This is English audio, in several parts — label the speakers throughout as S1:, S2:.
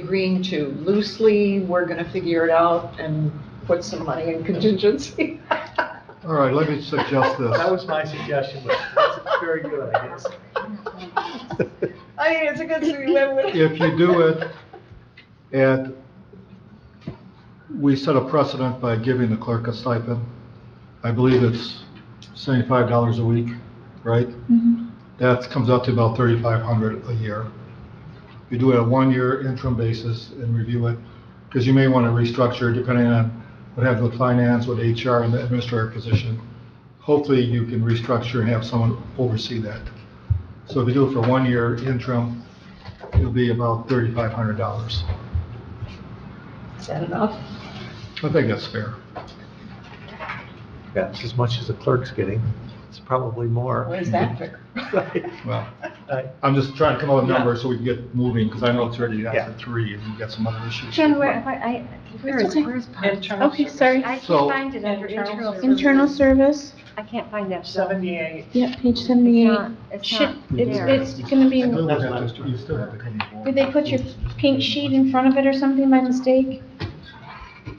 S1: agreeing to loosely, we're gonna figure it out and put some money in contingency.
S2: All right, let me suggest
S3: That
S2: this.
S3: was my suggestion, but that's very good, I guess.
S1: I mean, it's a good thing we went with.
S2: If you do it, and we set a precedent by giving the clerk a stipend, I believe it's seventy-five dollars a week, right? That comes out to about thirty-five hundred a year. You do it on a one-year interim basis and review it, because you may want to restructure depending on what happens with finance, with HR and the administrative position. Hopefully, you can restructure and have someone oversee that. So if you do it for one year interim, it'll be about thirty-five hundred dollars.
S1: Is that enough?
S2: I think that's fair.
S3: That's as much as the clerk's getting. It's probably more.
S1: Where's that figure?
S2: Well,
S3: Right.
S2: I'm just trying to come up with numbers so we can get moving, because I know it's already
S3: Yeah.
S2: after three, and we've got some other issues.
S4: Jen, where, have I, I, where is,
S5: okay.
S4: where is? Bob?
S1: Internal
S5: Okay,
S1: service.
S5: sorry.
S4: I can't
S2: So-
S4: find it under internal. service.
S5: Internal service,
S4: I can't find that. so
S1: Seventy-eight.
S5: yeah, page
S4: It's
S5: seventy-eight.
S4: not, it's
S5: Should,
S4: not there.
S5: it's, it's gonna be,
S2: You still
S5: did
S2: have to- you still have to come aboard.
S5: they put your pink sheet in front of it or something by mistake?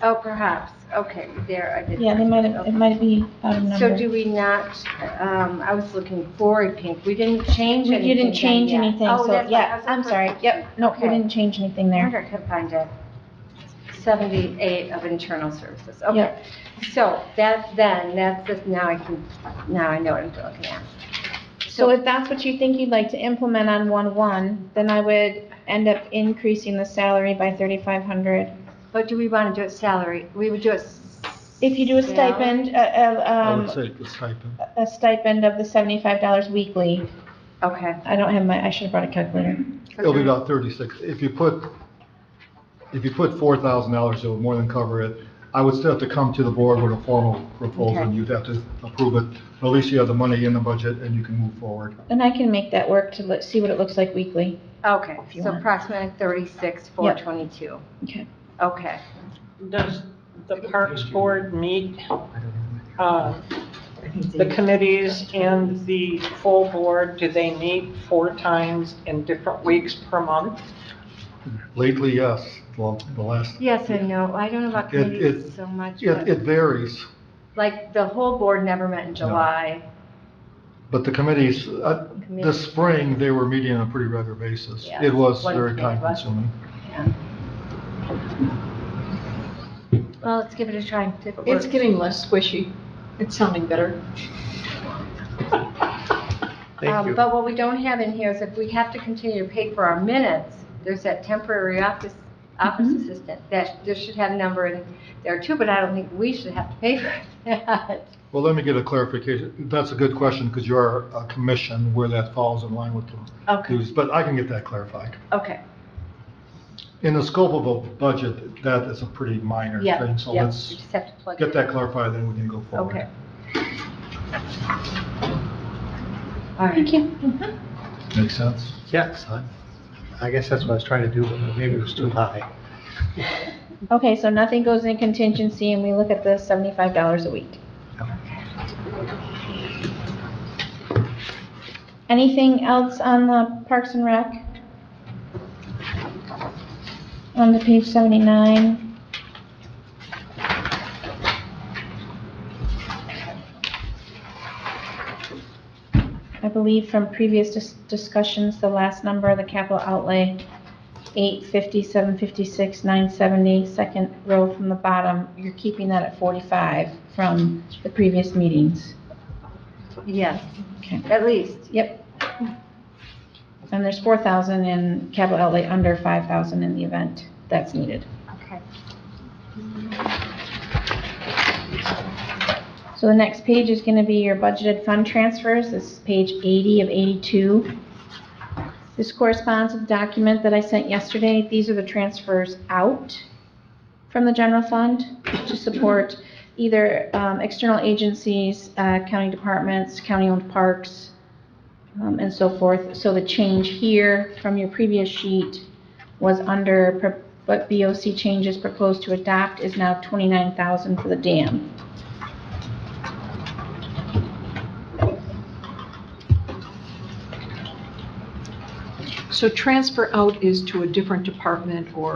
S4: Oh, perhaps, okay, there, I did.
S5: Yeah, they might have, it might be out of
S4: So
S5: number.
S4: do we not, um, I was looking for a pink, we didn't change
S5: You
S4: anything.
S5: didn't change
S4: then yet.
S5: anything,
S4: Oh,
S5: so,
S4: that's right, I
S5: yeah,
S4: was
S5: I'm
S4: looking-
S5: sorry, yep, no, we
S4: Okay.
S5: didn't change anything
S4: I
S5: there.
S4: wonder if I could find it. Seventy-eight of internal services, okay.
S5: Yep.
S4: So that, then, that's, just- now I can, now I know what I'm looking at.
S5: So if that's what you think you'd like to implement on one-one, then I would end up increasing the salary by thirty-five hundred.
S4: But do we want to do it salary? We would do it. s-
S5: If you do a
S4: salary?
S5: stipend, uh, uh,
S2: I would
S5: um,
S2: say the stipend.
S5: a stipend of the seventy-five dollars weekly,
S4: Okay.
S5: I don't have my, I should have brought a calculator.
S2: It'll be about thirty-six. If you put, if you put four thousand dollars, it'll more than cover it. I would still have to come to the board with a formal proposal, and you'd have to approve it. But At least you have the money in the budget, and you can move forward.
S5: And I can make that work to let, see what it looks like weekly.
S4: Okay,
S5: If you
S4: so
S5: want.
S4: approximately thirty-six, four twenty-two.
S5: Okay.
S4: Okay.
S6: Does the Parks Board meet, uh, the committees and the full board, do they meet four times in different weeks per month?
S2: Lately, yes, well, the last,
S4: Yes and no. I don't know about
S2: It- it-
S4: committees so much,
S2: it,
S4: but,
S2: it varies,
S4: like, the whole board never met in July.
S2: but the committees, uh,
S4: Committee-
S2: this spring, they were meeting on a pretty regular basis.
S4: Yeah,
S2: It was
S4: one
S2: very
S4: thing was-
S2: time consuming.
S4: Well, let's give it a try. If it
S1: It's
S4: works.
S1: getting less squishy. It's sounding better.
S3: Thank
S4: Um,
S3: you.
S4: But what we don't have in here is if we have to continue to pay for our minutes, there's that temporary office, office assistant. That, there should have a number in there too, but I don't think we should have to pay for that.
S2: Well, let me get a clarification. That's a good question, because you are a commission where that falls in line with the
S4: Okay,
S2: dues, but I can get that clarified.
S4: okay.
S2: In the scope of a budget, that is a pretty minor
S4: Yeah,
S2: thing, so
S4: yeah, we
S2: let's
S4: just have to plug it in.
S2: get that clarified, then we can go forward.
S4: Okay. All right.
S5: Thank you.
S2: Makes sense?
S3: Yes, I- I guess that's what I was trying to do, but maybe it was too high.
S5: Okay, so nothing goes in contingency and we look at the seventy-five dollars a week. Anything else on the Parks and Rec? On the page seventy-nine? I believe from previous dis- discussions, the last number, the capital outlay, eight fifty, seven fifty-six, nine seventy, second row from the bottom, you're keeping that at forty-five from the previous meetings.
S4: Yes,
S5: Okay.
S4: at least.
S5: Yep. And there's four thousand in capital outlay, under five thousand in the event that's needed.
S4: Okay.
S5: So the next page is gonna be your budgeted fund transfers, this is page eighty of eighty-two. This corresponds with the document that I sent yesterday, these are the transfers out from the general fund to support either, um, external agencies, uh, county departments, county-owned parks, um, and so forth. So the change here from your previous sheet was under, pro- but BOC changes proposed to adopt is now twenty-nine thousand for the dam.
S1: So transfer out is to a different department or